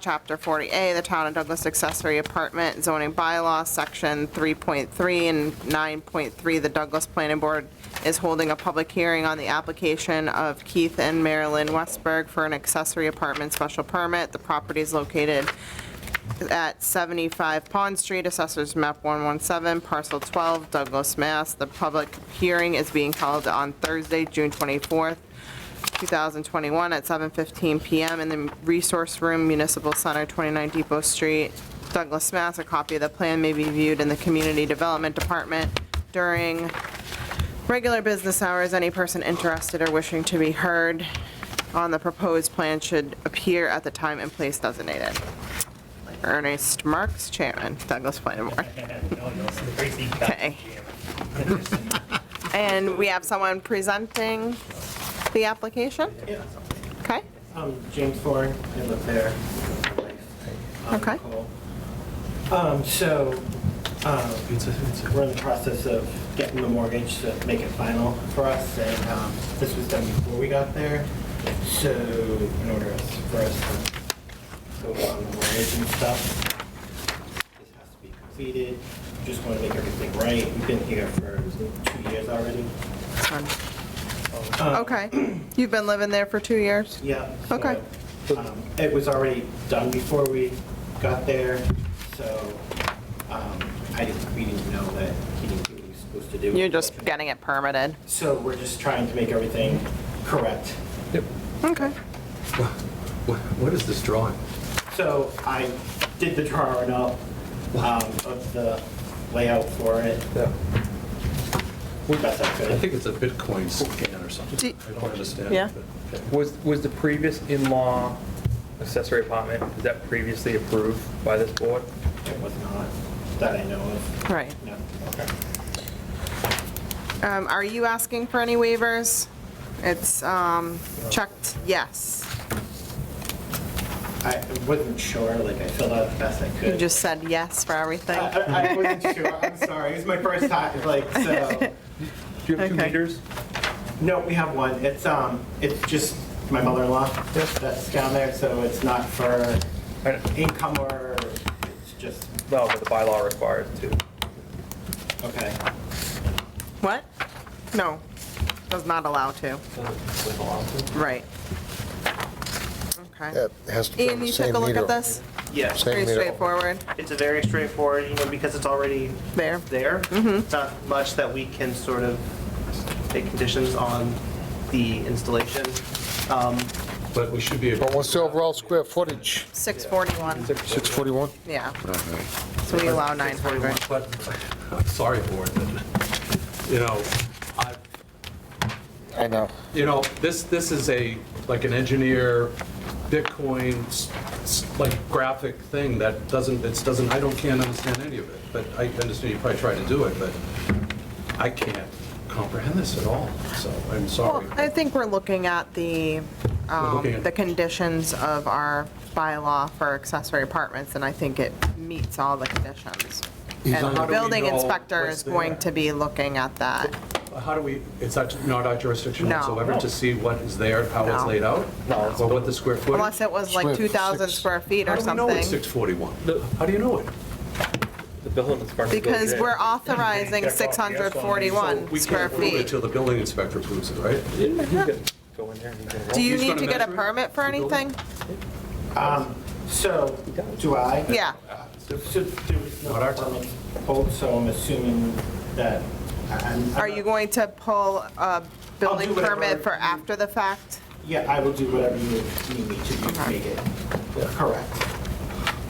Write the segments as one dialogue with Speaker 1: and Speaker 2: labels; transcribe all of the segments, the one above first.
Speaker 1: Chapter 40A, the Town of Douglas Accessory Apartment Zoning Bylaw, Section 3.3 and 9.3, the Douglas Planning Board is holding a public hearing on the application of Keith and Marilyn Westberg for an accessory apartment special permit. The property is located at 75 Pond Street, Assessors Map 117, Parcel 12, Douglas, Mass. The public hearing is being held on Thursday, June 24th, 2021, at 7:15 PM in the Resource Room, Municipal Center, 29 Depot Street, Douglas, Mass. A copy of the plan may be viewed in the Community Development Department during regular business hours. Any person interested or wishing to be heard on the proposed plan should appear at the time and place designated. Ernest Marks, Chairman, Douglas Planning Board.
Speaker 2: No, no, it's crazy.
Speaker 1: Okay. And we have someone presenting the application?
Speaker 2: Yeah.
Speaker 1: Okay,
Speaker 2: Um, James Ford, I live there. Um,
Speaker 1: Okay.
Speaker 2: cool. Um, so, um, we're in the process of getting the mortgage to make it final for us, and, um, this was done before we got there. So, in order us- for us to go on the mortgage and stuff, this has to be completed. Just wanna make everything right. We've been here for two years already.
Speaker 1: Sorry.
Speaker 2: Um,
Speaker 1: okay. You've been living there for two years?
Speaker 2: Yeah.
Speaker 1: Okay.
Speaker 2: so, um, It was already done before we got there, so um, I didn't, we didn't know that he didn't do what he was supposed to do.
Speaker 1: You're just getting it permitted?
Speaker 2: So we're just trying to make everything correct.
Speaker 3: Yep.
Speaker 1: Okay,
Speaker 3: What what is this drawing?
Speaker 2: So I did the drawing up um, of the layout for it,
Speaker 3: Yeah.
Speaker 2: best I
Speaker 3: I
Speaker 2: could.
Speaker 3: think it's a Bitcoin scan or something.
Speaker 1: Do-
Speaker 3: I don't understand.
Speaker 1: Yeah.
Speaker 3: but-
Speaker 4: Was, was the previous in-law accessory apartment, was that previously approved by this board?
Speaker 2: It was not, that I know of.
Speaker 1: right.
Speaker 2: No.
Speaker 1: Um, Are you asking for any waivers? It's um, checked, yes.
Speaker 2: I wasn't sure, like I filled out the best I could.
Speaker 1: You just said yes for everything?
Speaker 2: I- I I wasn't sure, I'm sorry, it was my first time, like, so.
Speaker 4: Do you have two
Speaker 1: Okay.
Speaker 4: meters?
Speaker 2: No, we have one. It's, um, it's just my mother-in-law that's down there, so it's not for
Speaker 4: I know.
Speaker 2: income or, it's just,
Speaker 4: No, but the bylaw requires two.
Speaker 2: okay.
Speaker 1: What? No, does not allow to. Right. Okay.
Speaker 5: It has to be on
Speaker 1: Ian,
Speaker 5: the
Speaker 1: you took a
Speaker 5: same
Speaker 1: look
Speaker 5: meter.
Speaker 1: at this?
Speaker 6: Yeah,
Speaker 5: Same
Speaker 1: Pretty
Speaker 5: meter.
Speaker 1: straightforward,
Speaker 6: it's a very straightforward, you know, because it's already
Speaker 1: there.
Speaker 6: there.
Speaker 1: Mm-hmm.
Speaker 6: It's not much that we can sort of make conditions on the installation. Um,
Speaker 3: But we should be able.
Speaker 5: But what's the overall square footage?
Speaker 1: 641,
Speaker 5: 641?
Speaker 1: yeah. So we allow 900.
Speaker 3: But, I'm sorry, board, but, you know, I,
Speaker 5: I know.
Speaker 3: you know, this, this is a, like an engineer, Bitcoin, s- s- like graphic thing that doesn't, it doesn't, I don't, can't understand any of it. But I understand you probably try to do it, but I can't comprehend this at all, so I'm
Speaker 1: Well,
Speaker 3: sorry.
Speaker 1: I think we're looking at the,
Speaker 3: We're looking
Speaker 1: um,
Speaker 3: at-
Speaker 1: the conditions of our bylaw for accessory apartments, and I think it meets all the conditions. And
Speaker 3: How
Speaker 1: the
Speaker 3: do we
Speaker 1: building
Speaker 3: know
Speaker 1: inspector
Speaker 3: what's
Speaker 1: is going
Speaker 3: there?
Speaker 1: to be looking at that.
Speaker 3: How do we, it's not not our jurisdiction
Speaker 1: No.
Speaker 3: whatsoever to see what is there, how it's
Speaker 1: No.
Speaker 3: laid out?
Speaker 4: No.
Speaker 3: Or what the square footage?
Speaker 1: Unless it was like
Speaker 5: Square
Speaker 1: 2,000
Speaker 5: six.
Speaker 1: square feet or
Speaker 3: How do we know it's
Speaker 1: something.
Speaker 3: 641? How do you know it?
Speaker 4: The building inspector.
Speaker 1: Because we're
Speaker 4: off.
Speaker 1: authorizing 641 square
Speaker 3: We can't prove it
Speaker 1: feet.
Speaker 3: till the building inspector approves it, right?
Speaker 4: Go in there and you can.
Speaker 1: Do you
Speaker 3: Who's
Speaker 1: need
Speaker 3: gonna
Speaker 1: to get a
Speaker 3: measure it?
Speaker 1: permit for
Speaker 3: The building?
Speaker 1: anything?
Speaker 2: Um, so, do I?
Speaker 1: Yeah,
Speaker 2: So there was no
Speaker 3: Not our
Speaker 2: permit pulled, so I'm assuming that I- I'm.
Speaker 1: are you going to pull a building
Speaker 2: whatever.
Speaker 1: permit for after the fact?
Speaker 2: Yeah, I will do whatever you need me to do to make it correct.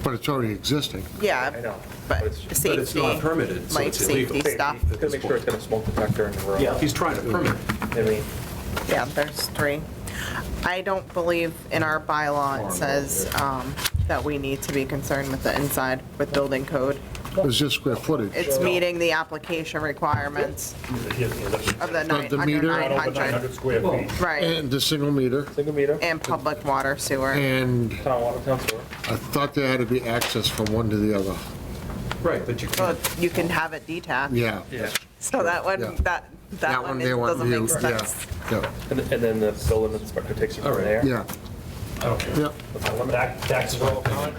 Speaker 5: But it's already existing.
Speaker 4: I
Speaker 1: Yeah,
Speaker 4: know.
Speaker 1: but
Speaker 4: it's-
Speaker 1: safety.
Speaker 3: But it's not permitted, so
Speaker 1: Life
Speaker 3: it's
Speaker 1: safety
Speaker 3: illegal.
Speaker 1: stuff.
Speaker 4: Gotta make sure it's got a smoke detector in the room.
Speaker 2: Yeah.
Speaker 3: He's trying to permit it.
Speaker 4: I mean,
Speaker 1: Yeah, there's three. I don't believe in our bylaw it says um, that we need to be concerned with the inside with building code.
Speaker 5: It's just square footage.
Speaker 1: It's meeting the application requirements of the nine,
Speaker 5: the
Speaker 1: under
Speaker 5: meter?
Speaker 1: 900,
Speaker 7: square feet.
Speaker 1: right,
Speaker 5: And the single meter,
Speaker 4: single meter,
Speaker 1: and public water sewer.
Speaker 5: and
Speaker 4: town water, town sewer.
Speaker 5: I thought there had to be access from one to the other.
Speaker 3: Right, but you
Speaker 1: Well,
Speaker 3: can't.
Speaker 1: you can have it detached,
Speaker 5: Yeah.
Speaker 1: so that
Speaker 5: Yeah.
Speaker 1: one, that, that one
Speaker 5: they
Speaker 1: is-
Speaker 5: want
Speaker 1: doesn't
Speaker 5: you-
Speaker 1: make sense.
Speaker 5: Yeah,
Speaker 4: And and then the building inspector takes it
Speaker 3: All
Speaker 4: from
Speaker 3: right.
Speaker 4: there.
Speaker 5: yeah, yeah.
Speaker 7: I don't care.
Speaker 5: Yep.
Speaker 7: Back, back to the comment.